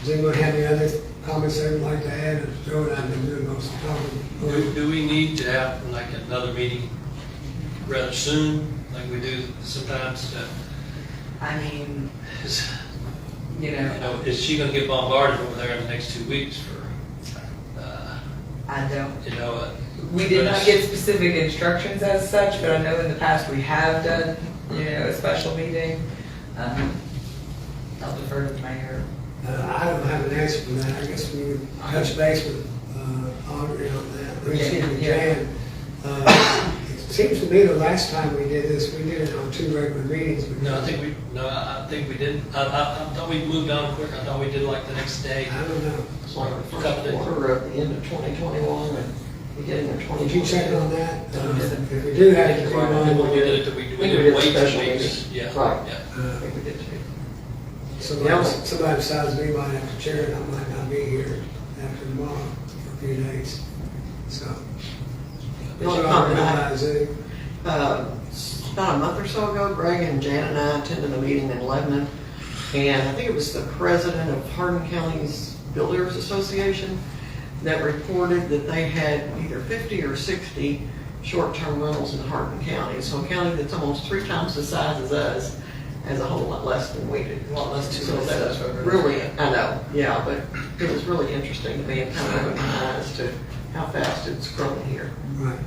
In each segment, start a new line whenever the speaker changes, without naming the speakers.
Does anyone have any other comments they would like to add? And Joe and I have been doing most of the
Do,
talking.
do we need to have like another meeting rather soon, like we do sometimes? to-
I mean,
is-
you
You
know,
know, is she gonna get bombarded over there in the next two weeks for, uh,
I don't,
you know? uh,
we did not
but-
get specific instructions as such, but I know in the past we have done, you know, a special meeting. Um, I'll defer to the mayor.
Uh, I don't have an answer for that. I guess we would touch base with uh, Audrey on that. We see if we
Yeah.
can. Uh, It seems to me the last time we did this, we did it on two regular meetings. but-
No, I think we, no, I I think we didn't. I, I, I thought we moved on quick. I thought we did like the next day.
I don't know.
It's like the first quarter of the end of 2021 and beginning of 2022.
Did you check on that? Uh, If we do have to do
I think We
one,
did it, that we we
I think we
did
did
wait
special
two weeks.
meetings.
Yeah,
Right.
yeah.
I
uh,
think we did too.
Somebody, somebody besides me might have to chair it, I might not be here after tomorrow for a few days, so.
No,
But you all realize it.
Um, s- About a month or so ago, Greg and Jan and I attended a meeting in Lebanon. And I think it was the president of Hardin County's Builders Association that reported that they had either 50 or 60 short-term rentals in Hardin County. So a county that's almost three times the size as us has a whole lot less than we do.
Lot less than
So
us.
that's really, I know, yeah, but it was really interesting to me and kind of opened my eyes to how fast it's growing here.
Right.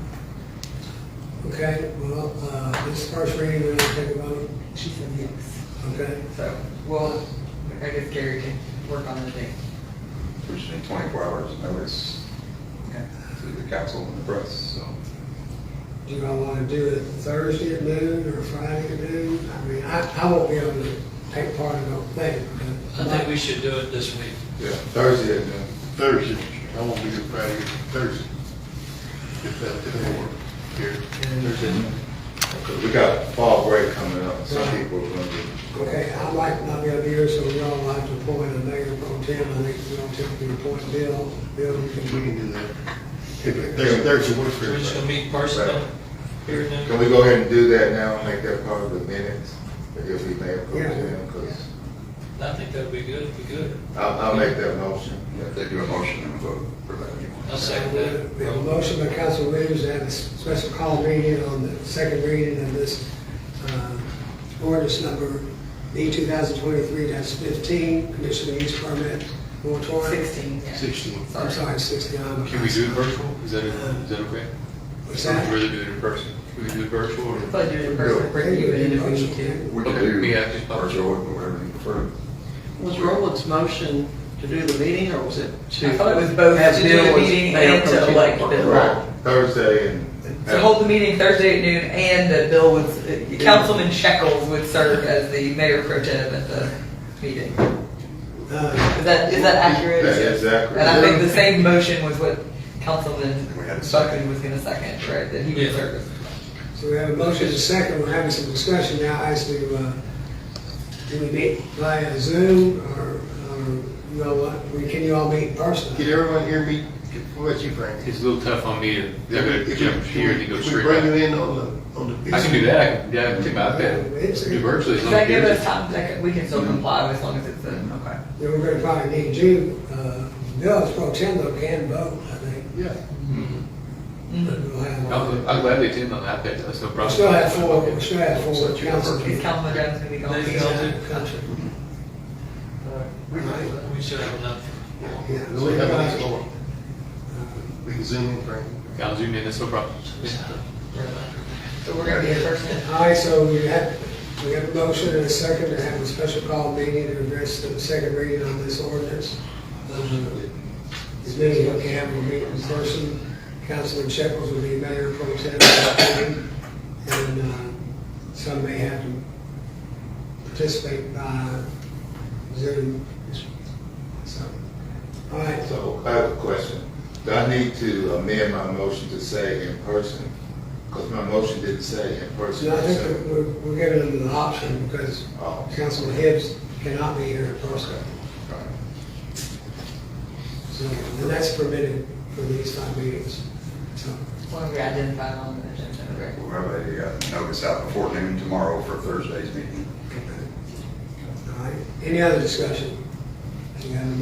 Okay, well, uh, this first reading, we're gonna take a vote,
She said yes.
okay?
So, well, I guess Gary can work on the date.
We just need 24 hours notice
Okay.
to the council and the press, so.
Do you all wanna do it Thursday at noon or Friday at noon? I mean, I, I won't be able to take part in the thing, but.
I think we should do it this week.
Yeah, uh,
Thursday at noon.
Thursday, I won't be here Friday, Thursday. If that, if that works here.
Thursday
Because we got fall break coming up, some
Right.
people are gonna be.
Okay, I might not be up here, so we all like to appoint a mayor pro tem. I think we don't typically appoint Bill. Bill, you
We
can-
can do that. Thursday, Thursday works for
We're just gonna
everybody.
meet personally here and
Can
then.
we go ahead and do that now, and make that part of the minutes, if we may approve
Yeah.
them, because
I think that'd be good, be good.
I'll, I'll make that motion.
If they do a motion and vote for that
I'll
anyway.
second
uh, We have a
that.
motion by Council Williams to have a special call meeting on the second reading of this uh, ordinance number B two thousand twenty-three fifteen, conditional use permit moratorium.
Sixteen, yeah.
Sixteen.
I'm sorry, sixty-nine.
Can we do it virtual? Is that, is that okay?
What's
Or
that?
Rather do it in person? Can we do it virtual or?
But you're the person bringing it in if we need to.
We can
Okay,
do
we have to-
virtual or whatever you prefer.
Was Roland's motion to do the meeting, or was it to?
I thought it was both
have
to do
Bill
the
as
meeting
mayor
and
pro
to
tem?
elect Bill.
Right.
Thursday and.
So hold the meeting Thursday at noon and that Bill would, uh, Councilman Shekels would serve as the mayor pro tem at the meeting.
Uh,
Is that, is that accurate?
That is accurate.
And I think the same motion was what Councilman
We had a second.
Buckley was gonna second, right, that he
Yeah.
would serve.
So we have a motion and a second. We're having some discussion now as to, uh, do we meet via Zoom or, or, you know what, we- can you all meet personally?
Did everyone hear me? What about you, Frank?
It's a little tough on me to,
If we-
they're gonna
if
jump
we-
here and then go
if
straight
We bring you
back.
in on the, on the.
I can do that, I can, yeah, I can do my
It's-
iPad, do virtually as
Does
long as
that give
there's
us
a-
time, that can- we can still comply as long as it's, a- okay.
Yeah, we're gonna probably need you, uh, Bill is pro tem though, can vote, I think.
Yeah.
Mm-hmm.
but we'll have-
I'll, I'll gladly attend on the iPad, that's no problem.
We still have four, we
Okay.
still have four
Such a
council
Is
people.
Councilman Jones gonna be gone?
Maybe I'll do-
Country.
We should have enough.
Yeah.
No, we have a nice one. We can zoom in, Frank.
I'll zoom in, that's no problem.
So we're gonna be in person.
All right, so we have, we have a motion and a second to have a special call meeting to address the second reading on this ordinance. Uh, As many as we can, we'll meet in person. Councilman Shekels will be mayor pro tem. at that meeting. And uh, some may have to participate by Zoom. So, all right,
So I have a question. Do I need to amend my motion to say in person? Because my motion didn't say in person.
so I think that we're, we're giving them the option because
Oh, okay.
Councilman Hibbs cannot be here in person.
All right.
Uh,
So, and that's permitted for these five meetings. So,
When we identify on the agenda, right?
Remember, they got uh, notice out before noon tomorrow for Thursday's meeting.
all right, any other discussion? Any other